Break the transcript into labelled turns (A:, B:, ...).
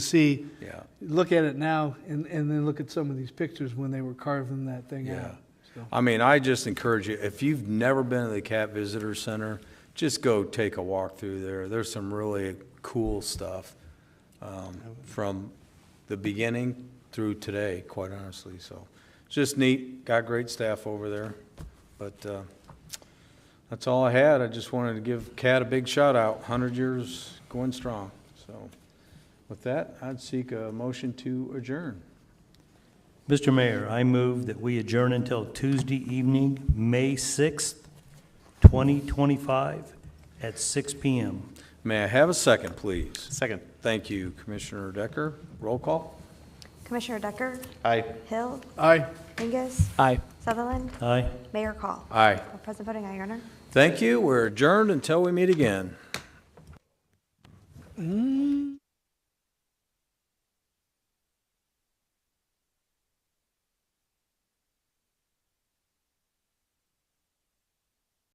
A: see,
B: Yeah,
A: look at it now, and, and then look at some of these pictures when they were carving that thing
B: yeah.
A: out. So,
B: I mean, I just encourage you, if you've never been to the Cat Visitor Center, just go take a walk through there. There's some really cool stuff um, from the beginning through today, quite honestly, so. it's Just neat, got great staff over there, but uh, that's all I had. I just wanted to give Cat a big shout out, 100 years going strong, so. With that, I'd seek a motion to adjourn.
C: Mr. Mayor, I move that we adjourn until Tuesday evening, May 6th, 2025, at 6 PM.
B: May I have a second, please?
D: Second.
B: Thank you, Commissioner Decker. Roll call?
E: Commissioner Decker,
D: Aye.
E: Hill,
A: Aye.
E: Mingus,
D: Aye.
E: Sutherland,
C: Aye?
E: Mayor Call.
B: Aye.
E: Present voting, aye, Your Honor.
B: Thank you. We're adjourned until we meet again.